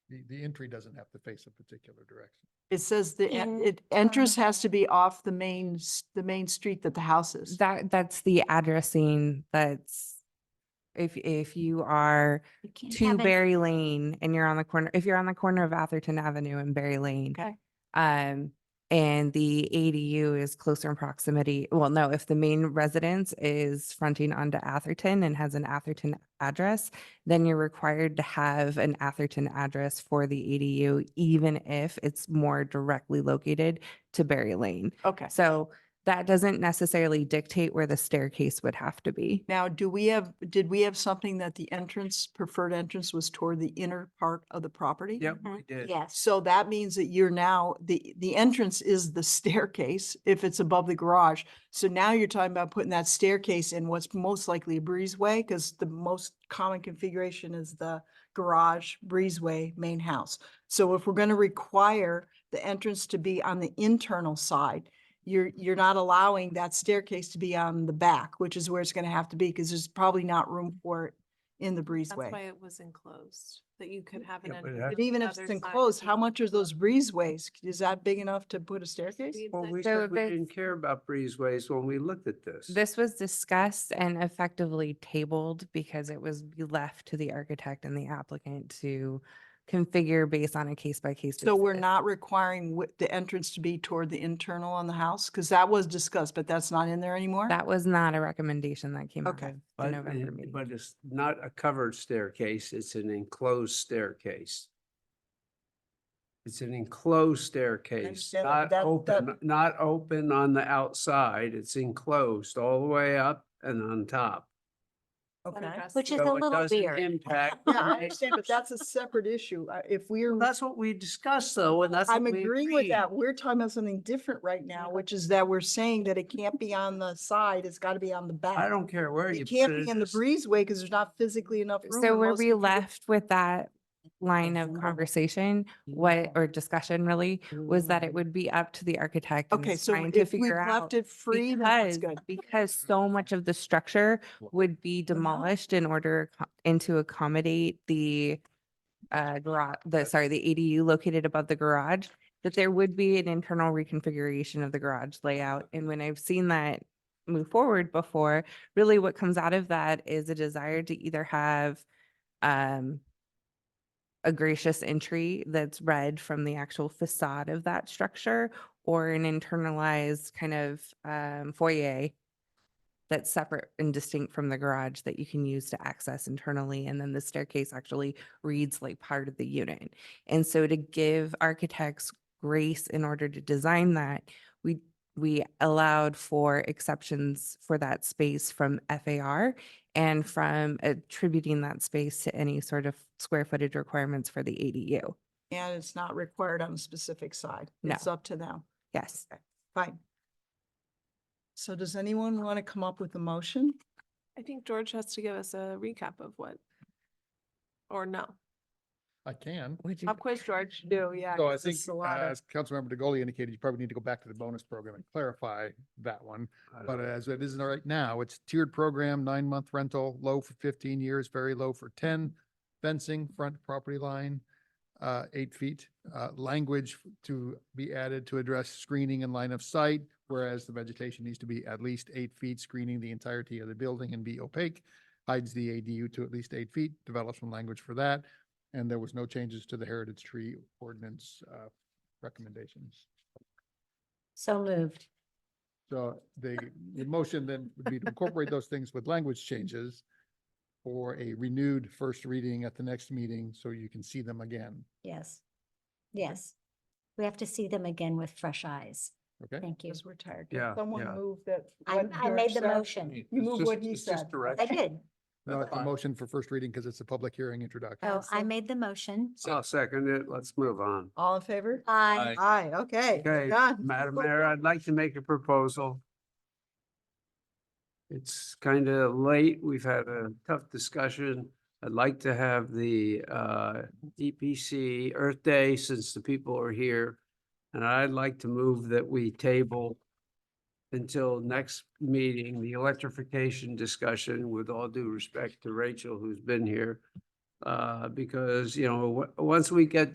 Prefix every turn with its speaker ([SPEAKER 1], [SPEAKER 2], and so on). [SPEAKER 1] the, the entry doesn't have to face a particular direction.
[SPEAKER 2] It says the, en-
[SPEAKER 3] In-
[SPEAKER 2] it enters has to
[SPEAKER 3] uh,
[SPEAKER 2] be off the main, s- the main street that the house is.
[SPEAKER 3] That, that's the addressing that's, if, if you are
[SPEAKER 4] You can't
[SPEAKER 3] to
[SPEAKER 4] have an-
[SPEAKER 3] Berry Lane and you're on the corner, if you're on the corner of Atherton Avenue and Berry Lane.
[SPEAKER 4] Okay.
[SPEAKER 3] Um, and the ADU is closer in proximity, well, no, if the main residence is fronting onto Atherton and has an Atherton address, then you're required to have an Atherton address for the ADU, even if it's more directly located to Berry Lane.
[SPEAKER 2] Okay.
[SPEAKER 3] So that doesn't necessarily dictate where the staircase would have to be.
[SPEAKER 2] Now, do we have, did we have something that the entrance, preferred entrance was toward the inner part of the property?
[SPEAKER 5] Yep,
[SPEAKER 4] Mhm.
[SPEAKER 5] we did.
[SPEAKER 4] Yes,
[SPEAKER 2] So that means that you're now, the, the entrance is the staircase if it's above the garage. So now you're talking about putting that staircase in what's most likely a breezeway because the most common configuration is the garage, breezeway, main house. So if we're going to require the entrance to be on the internal side, you're, you're not allowing that staircase to be on the back, which is where it's going to have to be because there's probably not room for it in the breezeway.
[SPEAKER 6] That's why it was enclosed, that you could have an.
[SPEAKER 5] Mm, Yeah,
[SPEAKER 2] But
[SPEAKER 6] entrance on
[SPEAKER 5] but it has-
[SPEAKER 6] the
[SPEAKER 2] even if
[SPEAKER 6] other
[SPEAKER 2] it's
[SPEAKER 6] side
[SPEAKER 2] enclosed,
[SPEAKER 6] and
[SPEAKER 2] how
[SPEAKER 6] you
[SPEAKER 2] much are
[SPEAKER 6] could
[SPEAKER 2] those
[SPEAKER 6] look.
[SPEAKER 2] breezeways? Is that big enough to put a staircase?
[SPEAKER 6] We
[SPEAKER 5] Well,
[SPEAKER 6] said
[SPEAKER 5] we
[SPEAKER 3] So
[SPEAKER 5] said
[SPEAKER 3] if
[SPEAKER 5] we didn't
[SPEAKER 3] it's-
[SPEAKER 5] care about breezeways when we looked at this.
[SPEAKER 3] This was discussed and effectively tabled because it was left to the architect and the applicant to configure based on a case by case.
[SPEAKER 2] So we're not requiring wi- the entrance to be toward the internal on the house? Because that was discussed, but that's not in there anymore?
[SPEAKER 3] That was not a recommendation that came out
[SPEAKER 2] Okay.
[SPEAKER 3] of the
[SPEAKER 5] But,
[SPEAKER 3] November
[SPEAKER 5] it-
[SPEAKER 3] meeting.
[SPEAKER 5] but it's not a covered staircase, it's an enclosed staircase. It's an enclosed staircase,
[SPEAKER 2] understand that,
[SPEAKER 5] not
[SPEAKER 2] that-
[SPEAKER 5] open,
[SPEAKER 2] that-
[SPEAKER 5] not open on the outside, it's enclosed all the way up and on top.
[SPEAKER 2] Okay.
[SPEAKER 6] unaddressed.
[SPEAKER 4] Which is
[SPEAKER 5] So
[SPEAKER 4] a
[SPEAKER 5] it
[SPEAKER 4] little
[SPEAKER 5] doesn't
[SPEAKER 4] weird.
[SPEAKER 5] impact
[SPEAKER 2] Yeah, I
[SPEAKER 5] neighbors.
[SPEAKER 2] understand, but that's a separate issue. Uh, If we're,
[SPEAKER 5] That's what we discussed though, and that's.
[SPEAKER 2] I'm
[SPEAKER 5] what we
[SPEAKER 2] agreeing with
[SPEAKER 5] agreed.
[SPEAKER 2] that. We're talking about something different right now, which is that we're saying that it can't be on the side, it's got to be on the back.
[SPEAKER 5] I don't care where you.
[SPEAKER 2] It can't
[SPEAKER 5] put
[SPEAKER 2] be
[SPEAKER 5] it,
[SPEAKER 2] in the
[SPEAKER 5] it's-
[SPEAKER 2] breezeway because there's not physically enough room.
[SPEAKER 3] So
[SPEAKER 2] and
[SPEAKER 3] where
[SPEAKER 2] most
[SPEAKER 3] we
[SPEAKER 2] people get-
[SPEAKER 3] left with that line of
[SPEAKER 2] Mhm.
[SPEAKER 3] conversation, what, or discussion really, was that
[SPEAKER 5] Mm.
[SPEAKER 3] it would be up to the architect. and
[SPEAKER 2] Okay,
[SPEAKER 3] it's
[SPEAKER 2] so
[SPEAKER 3] trying to
[SPEAKER 2] if we
[SPEAKER 3] figure out-
[SPEAKER 2] left it free, then that's
[SPEAKER 3] Because,
[SPEAKER 2] good.
[SPEAKER 3] because so much of the structure would be demolished in order co- and to accommodate the uh, garage, the, sorry, the ADU located above the garage, that there would be an internal reconfiguration of the garage layout. And when I've seen that move forward before, really what comes out of that is a desire to either have um, a gracious entry that's read from the actual facade of that structure or an internalized kind of um, foyer that's separate and distinct from the garage that you can use to access internally. And then the staircase actually reads like part of the unit. And so to give architects grace in order to design that, we, we allowed for exceptions for that space from FAR and from attributing that space to any sort of square footage requirements for the ADU.
[SPEAKER 2] And it's not required on a specific side.
[SPEAKER 3] No.
[SPEAKER 2] It's up to them.
[SPEAKER 3] Yes.
[SPEAKER 2] Fine. So does anyone want to come up with a motion?
[SPEAKER 6] I think George has to give us a recap of what, or no.
[SPEAKER 1] I can.
[SPEAKER 3] Would you?
[SPEAKER 2] Of course, George, do, yeah.
[SPEAKER 1] So I
[SPEAKER 2] 'cause
[SPEAKER 1] think,
[SPEAKER 2] it's a lot
[SPEAKER 1] uh,
[SPEAKER 2] of-
[SPEAKER 1] as Councilmember DeGoli indicated, you probably need to go back to the bonus program and clarify that one.
[SPEAKER 5] I don't
[SPEAKER 1] But
[SPEAKER 5] know.
[SPEAKER 1] as it is right now, it's tiered program, nine-month rental, low for fifteen years, very low for ten. Fencing, front property line, uh, eight feet. Uh, language to be added to address screening and line of sight, whereas the vegetation needs to be at least eight feet, screening the entirety of the building and be opaque. Hides the ADU to at least eight feet, develops some language for that. And there was no changes to the heritage tree ordinance, uh, recommendations.
[SPEAKER 4] so moved.
[SPEAKER 1] So the, the motion then would be to incorporate those things with language changes for a renewed first reading at the next meeting, so you can see them again,
[SPEAKER 4] Yes. Yes. We have to see them again with fresh eyes.
[SPEAKER 1] okay?
[SPEAKER 4] Thank you.
[SPEAKER 2] Because we're tired.
[SPEAKER 5] Yeah,
[SPEAKER 2] Someone
[SPEAKER 5] yeah.
[SPEAKER 2] move that.
[SPEAKER 4] I,
[SPEAKER 2] what
[SPEAKER 4] I made
[SPEAKER 2] George
[SPEAKER 4] the
[SPEAKER 2] said.
[SPEAKER 4] motion.
[SPEAKER 5] It's
[SPEAKER 2] move
[SPEAKER 5] just-
[SPEAKER 2] what he
[SPEAKER 5] it's just
[SPEAKER 2] said.
[SPEAKER 4] I
[SPEAKER 5] direction.
[SPEAKER 4] did.
[SPEAKER 1] No, it's a
[SPEAKER 5] Fine.
[SPEAKER 1] motion for first reading because it's a public hearing introduction.
[SPEAKER 4] Oh, I
[SPEAKER 2] so-
[SPEAKER 4] made the motion.
[SPEAKER 5] I'll second it, let's move on.
[SPEAKER 2] All in favor?
[SPEAKER 5] uh,
[SPEAKER 4] I,
[SPEAKER 2] Aye, okay.
[SPEAKER 5] Okay,
[SPEAKER 2] done.
[SPEAKER 5] Madam Mayor, I'd like to make a proposal. It's kind of late. We've had a tough discussion. I'd like to have the uh, DPC Earth Day since the people are here. And I'd like to move that we table until next meeting, the electrification discussion with all due respect to Rachel, who's been here. Uh, because, you know, w- once we get